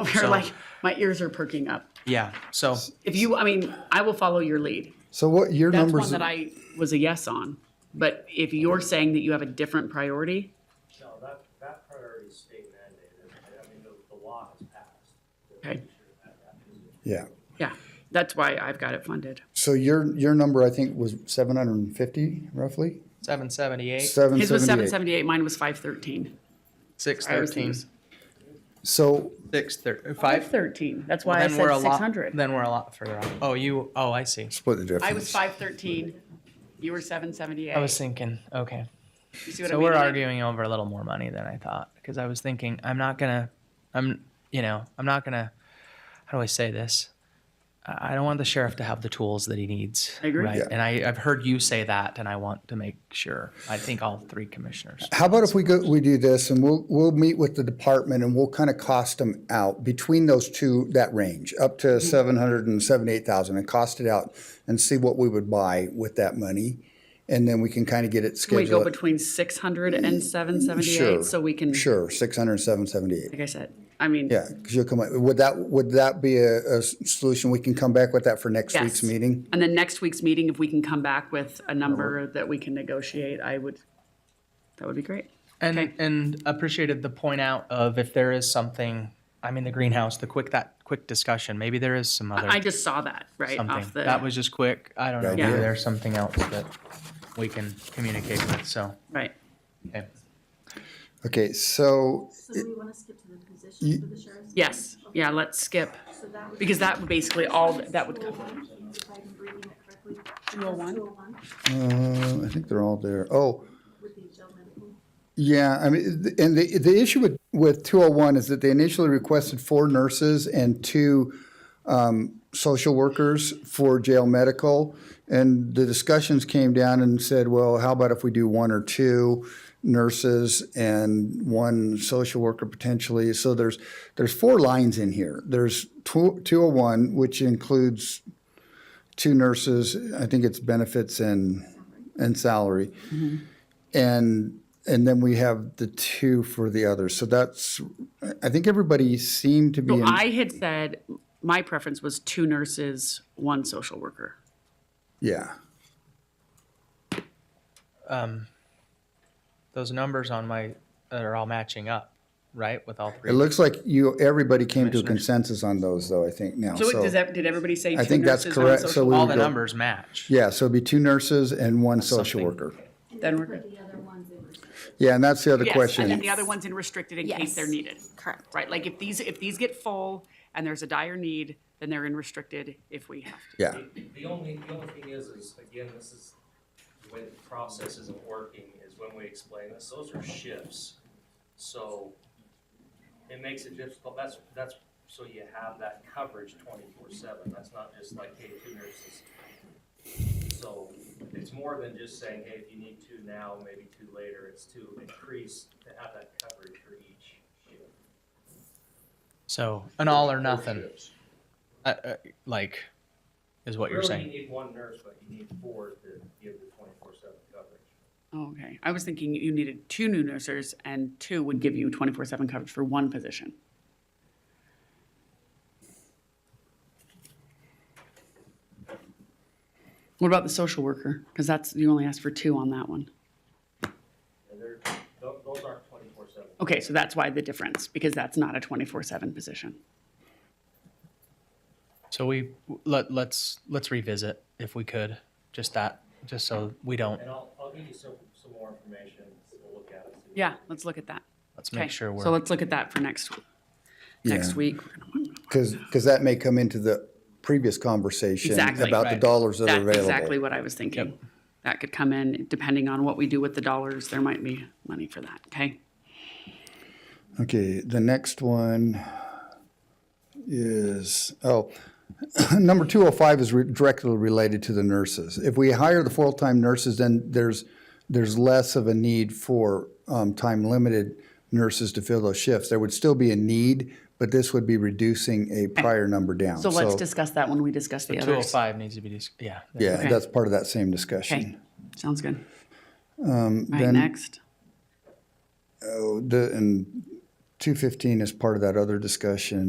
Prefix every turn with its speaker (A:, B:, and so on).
A: Over here,
B: So-
A: like, my ears are perking up.
B: Yeah, so
A: If you, I mean, I will follow your lead.
C: So what your
A: That's
C: numbers?
A: one that I was a yes on. But if you're saying that you have a different priority,
D: No, that, that priority is state mandated, I mean, the, the law has passed.
A: okay,
C: yeah.
A: yeah, that's why I've got it funded.
C: So your your number I think was seven hundred and fifty roughly.
B: seven seventy-eight,
C: Seven
A: His was seven
C: seventy eight.
A: seventy-eight, mine was five thirteen.
B: six
A: I was
B: thirteen,
A: thinking-
C: So
B: six thir- five.
A: thirteen, that's
B: Well,
A: why I
B: then we're a
A: said
B: lot-
A: six hundred.
B: Then we're a lot further off. Oh, you, oh, I see.
C: split the difference.
A: I was five thirteen, you were seven seventy-eight.
B: I was thinking, okay.
A: You see what I
B: So
A: mean?
B: we're
A: Like,
B: arguing over a little more money than I thought because I was thinking I'm not gonna, I'm you know I'm not gonna. How do I say this? I I don't want the sheriff to have the tools that he needs.
A: I agree.
B: Right?
A: Yeah.
B: And I, I've heard you say that, and I want to make sure. I think all three commissioners.
C: How about if we go, we do this and we'll, we'll meet with the department and we'll kind of cost them out between those two, that range, up to
A: Mm-hmm.
C: seven hundred and seventy-eight thousand and cost it out and see what we would buy with that money. And then we can kind of get it
A: Can we go
C: scheduled.
A: between six hundred and seven
C: Sure,
A: seventy-eight, so we can, like
C: Sure, six hundred and seven seventy-eight.
A: I said, I mean,
C: Yeah, because you'll come, up- would that, would that be a, a s- solution? We can come back with that for next week's
A: Yes.
C: meeting?
A: and then next week's meeting, if we can come back with a number that we can negotiate, I would, that would be great.
B: And and appreciated the point out of if there is something. I'm in the greenhouse. The quick that quick discussion. Maybe there is some other
A: I just saw that, right,
B: something
A: off the.
B: that was just quick. I don't know.
C: Good
B: Maybe
A: idea.
B: there's something else that we can communicate with. So
A: Right.
B: okay.
C: Okay, so,
E: So do we want to skip to the position for the sheriff's?
A: Yes, yeah, let's skip,
E: So that would.
A: because that would basically all, that would cover.
E: 201, If I'm reading it correctly.
A: 201?
E: 201
C: uh, I think they're all there. Oh,
E: Would be jail medical.
C: Yeah, I mean, th- and the, the issue with, with 201 is that they initially requested four nurses and two um, social workers for jail medical. And the discussions came down and said, well, how about if we do one or two nurses and one social worker potentially? So there's, there's four lines in here. There's tw- 201, which includes two nurses, I think it's benefits and, and salary. And, and then we have the two for the others. So that's, I think everybody seemed to be, in-
A: I had said, my preference was two nurses, one social worker.
C: yeah.
B: those numbers on my are all matching up, right? With all
C: It
B: three.
C: looks like you, everybody came to a consensus on those though, I think now.
A: So it- does
C: So,
A: that, did everybody say
C: I
A: two
C: think that's
A: nurses, one
C: correct, so
A: social?
C: we-
A: worker?
B: all the
C: go-
B: numbers match.
C: yeah, so it'd be two nurses and one social
B: something.
C: worker.
A: Then we're
E: For
A: good.
E: the other ones, they were.
C: Yeah, and that's the other
A: Yes, and then
C: question.
A: the other one's in restricted in case
E: Yes.
A: they're needed.
E: Correct.
A: Right, like if these, if these get full and there's a dire need, then they're in restricted if we have to.
C: Yeah,
D: The only, the only thing is, is again, this is, the way the process isn't working is when we explain this, those are shifts. So it makes it difficult, that's, that's, so you have that coverage twenty-four seven, that's not just like, hey, two nurses. So it's more than just saying, hey, if you need two now, maybe two later, it's to increase, to have that coverage for each shift.
B: So an all or nothing, uh, uh, like, is what you're
D: Really,
B: saying.
D: you need one nurse, but you need four to give the twenty-four seven coverage.
A: Okay, I was thinking you needed two new nurses and two would give you twenty-four seven coverage for one position. What about the social worker? Because that's, you only asked for two on that one.
D: And they're, tho- those aren't twenty-four seven.
A: Okay, so that's why the difference, because that's not a twenty-four seven position.
B: So we let let's let's revisit if we could, just that, just so we don't.
D: And I'll, I'll give you some, some more information, so we'll look at it. see.
A: Yeah, let's look at that.
B: Let's
A: Okay,
B: make sure
A: So
B: we're.
A: let's look at that for next, next week. We're gonna-
C: because, because that may come into the previous conversation
A: Exactly.
C: about the
B: Right.
C: dollars that are
A: That's exactly
C: available.
A: what I was thinking. That could come in, depending on what we do with the dollars, there might be money for that, okay?
C: Okay, the next one is, oh, number 205 is re- directly related to the nurses. If we hire the full-time nurses, then there's, there's less of a need for um, time-limited nurses to fill those shifts. There would still be a need, but this would be reducing a prior number down.
A: So let's discuss that when we discuss the
B: Two oh
A: others.
B: five needs to be, dis- yeah.
C: Yeah,
A: okay.
C: that's part of that same discussion.
A: Okay, sounds good.
B: Um,
A: All right, next.
C: The- And 215 is part of that other discussion.